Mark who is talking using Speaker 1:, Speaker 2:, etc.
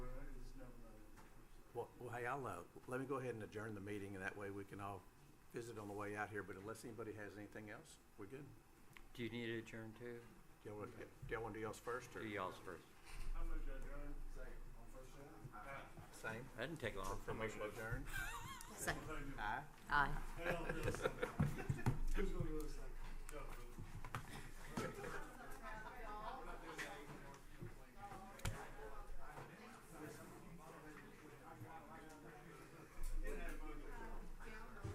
Speaker 1: Hey, I'll, uh, let me go ahead and adjourn the meeting, and that way we can all visit on the way out here, but unless anybody has anything else, we're good.
Speaker 2: Do you need to adjourn too?
Speaker 1: Do y'all, wanna- do y'all wanna do y'all's first, or?
Speaker 2: Do y'all's first?
Speaker 3: I move to adjourn. Second. On first shot?
Speaker 1: Same.
Speaker 2: That didn't take long for me.
Speaker 1: Motion to adjourn?
Speaker 3: Who's
Speaker 1: Aye.
Speaker 4: Aye.
Speaker 3: gonna do this second?